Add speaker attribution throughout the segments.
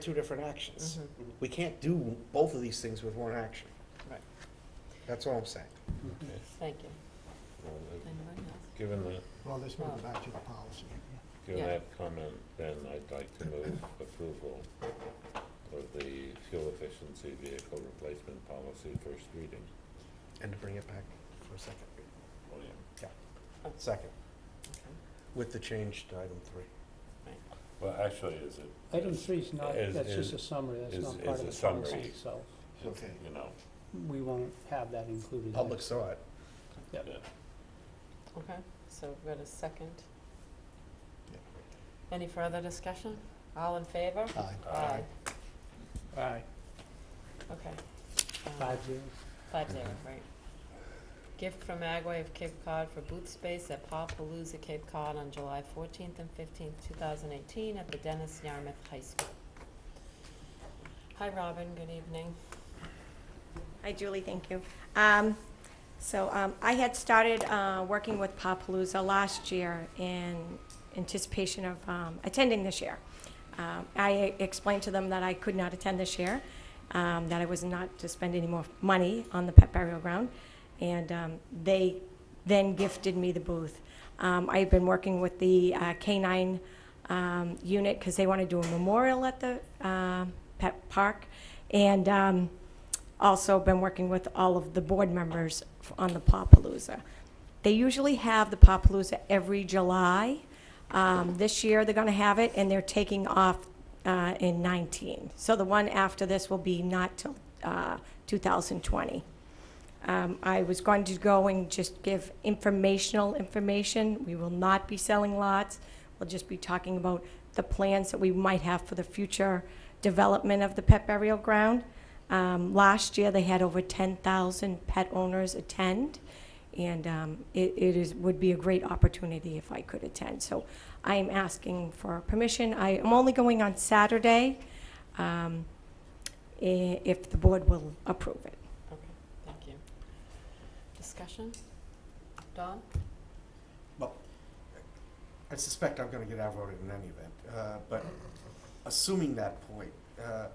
Speaker 1: two different actions. We can't do both of these things with one action.
Speaker 2: Right.
Speaker 1: That's all I'm saying.
Speaker 2: Thank you. Anyone else?
Speaker 3: Given that,
Speaker 4: Well, let's move it back to the policy.
Speaker 3: given
Speaker 2: Yeah.
Speaker 3: that comment, then I'd like to move approval of the fuel efficiency vehicle replacement policy first reading.
Speaker 1: And to bring it back for a second,
Speaker 3: Oh, yeah.
Speaker 1: second,
Speaker 2: Okay.
Speaker 1: with the change to item three.
Speaker 3: Well, actually, is it?
Speaker 5: Item three is not,
Speaker 3: Is-
Speaker 5: that's just
Speaker 3: is-
Speaker 5: a summary, that's
Speaker 3: is-
Speaker 5: not part of
Speaker 3: is a
Speaker 5: the
Speaker 3: summary.
Speaker 5: policy itself.
Speaker 4: Okay.
Speaker 3: You know,
Speaker 5: We won't have that included.
Speaker 1: Public saw it.
Speaker 2: Okay, so we've got a second. Any further discussion? All in favor?
Speaker 4: Aye.
Speaker 3: Aye.
Speaker 5: Aye.
Speaker 2: Okay. Um,
Speaker 5: Five zero.
Speaker 2: Five zero, right. Gift from Agway of Cape Cod for booth space at Palooza Cape Cod on July fourteenth and fifteenth, two thousand eighteen, at the Dennis Yarmouth High School. Hi, Robin, good evening.
Speaker 6: Hi, Julie, thank you. Um, So um, I had started uh, working with Papalooza last year in anticipation of um, attending this year. Um, I explained to them that I could not attend this year, um, that I was not to spend any more money on the pet burial ground, and um, they then gifted me the booth. Um, I've been working with the uh, K-9 um, unit because they want to do a memorial at the um, pet park, and um, also been working with all of the board members f- on the Papalooza. They usually have the Papalooza every July. Um, This year, they're going to have it, and they're taking off uh, in 19. So the one after this will be not till uh, 2020. Um, I was going to go and just give informational information. We will not be selling lots. We'll just be talking about the plans that we might have for the future development of the pet burial ground. Um, last year, they had over 10,000 pet owners attend, and um, it, it is, would be a great opportunity if I could attend. So I am asking for permission. I am only going on Saturday, um, i- if the board will approve it.
Speaker 2: Okay, thank you. Discussion? Don?
Speaker 1: I suspect I'm gonna get outvoted in any event, uh, but assuming that point, uh,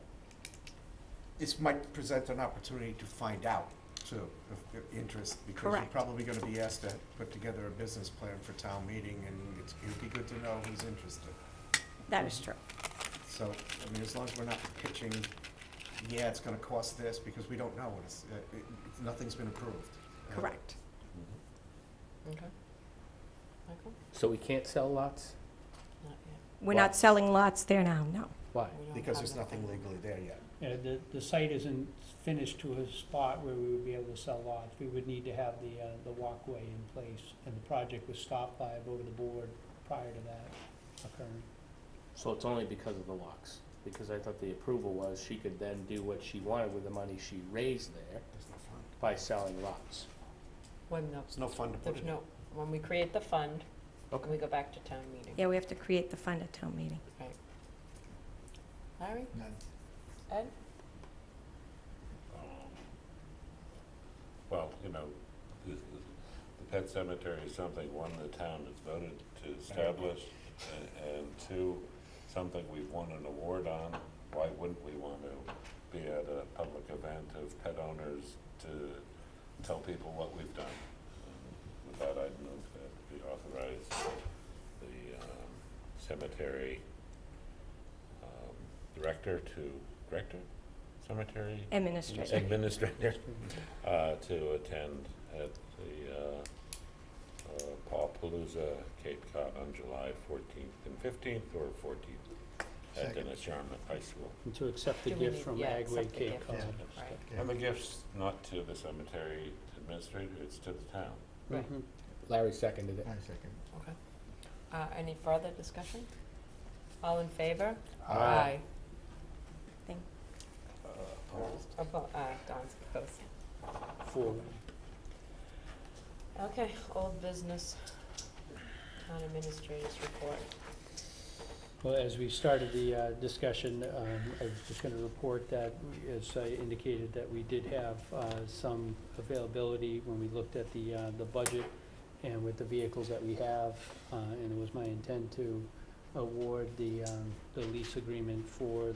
Speaker 1: this might present an opportunity to find out too, if, if interest, because you're
Speaker 6: Correct.
Speaker 1: probably gonna be asked to put together a business plan for town meeting, and it's, it'd be good to know who's interested.
Speaker 6: That is true.
Speaker 1: So, I mean, as long as we're not pitching, yeah, it's gonna cost this, because we don't know, and it's, uh, it, it's- nothing's been approved. Uh,
Speaker 6: Correct.
Speaker 3: Mm-hmm.
Speaker 2: Okay. Michael?
Speaker 7: So we can't sell lots?
Speaker 2: Not yet.
Speaker 6: We're not selling lots there now, no.
Speaker 7: Why?
Speaker 2: We don't
Speaker 1: Because
Speaker 2: have
Speaker 1: there's nothing
Speaker 2: legal.
Speaker 1: legally there yet.
Speaker 5: Yeah, the, the site isn't finished to a spot where we would be able to sell lots. We would need to have the, uh, the walkway in place, and the project was stopped by a vote of the board prior to that occurring.
Speaker 7: So it's only because of the locks, because I thought the approval was she could then do what she wanted with the money she raised there
Speaker 1: There's no fund.
Speaker 7: by selling lots.
Speaker 2: When the,
Speaker 1: There's no fund to put
Speaker 2: there's
Speaker 1: it in.
Speaker 2: no, when we create the fund,
Speaker 7: Okay.
Speaker 2: we go back to town meeting.
Speaker 6: Yeah, we have to create the fund at town meeting.
Speaker 2: Larry?
Speaker 4: None.
Speaker 2: Ed?
Speaker 3: um, Well, you know, the, the pet cemetery is something, one, the town has voted to establish, and, and two, something we've won an award on. Why wouldn't we want to be at a public event of pet owners to tell people what we've done? With that, I'd move that we authorize the, um, cemetery, um, director to, director? Cemetery?
Speaker 6: Administrator.
Speaker 3: administrator uh, to attend at the uh, uh, Pawpalooza Cape Cod on July 14th and 15th, or 14th at
Speaker 4: Second.
Speaker 3: Dennis Yarmouth High School.
Speaker 5: And to accept the
Speaker 2: Do we
Speaker 5: gift
Speaker 2: need-
Speaker 5: from
Speaker 2: yeah, accept
Speaker 5: Agway
Speaker 2: the
Speaker 5: Cape
Speaker 2: gift.
Speaker 5: Cod.
Speaker 2: Right.
Speaker 3: And the gift's not to the cemetery administrator, it's to the town.
Speaker 2: Right.
Speaker 5: Mhm.
Speaker 7: Larry seconded it.
Speaker 4: I second.
Speaker 2: Okay. Uh, any further discussion? All in favor?
Speaker 7: Aye.
Speaker 6: Thank-
Speaker 3: Opposed?
Speaker 2: Abo- aye, uh, Don's opposed.
Speaker 5: Four.
Speaker 2: Okay, old business, town administrators report.
Speaker 5: Well, as we started the uh, discussion, um, I was just going to report that, as I indicated, that we did have uh, some availability when we looked at the, uh, the budget and with the vehicles that we have, uh, and it was my intent to award the, um, the lease agreement for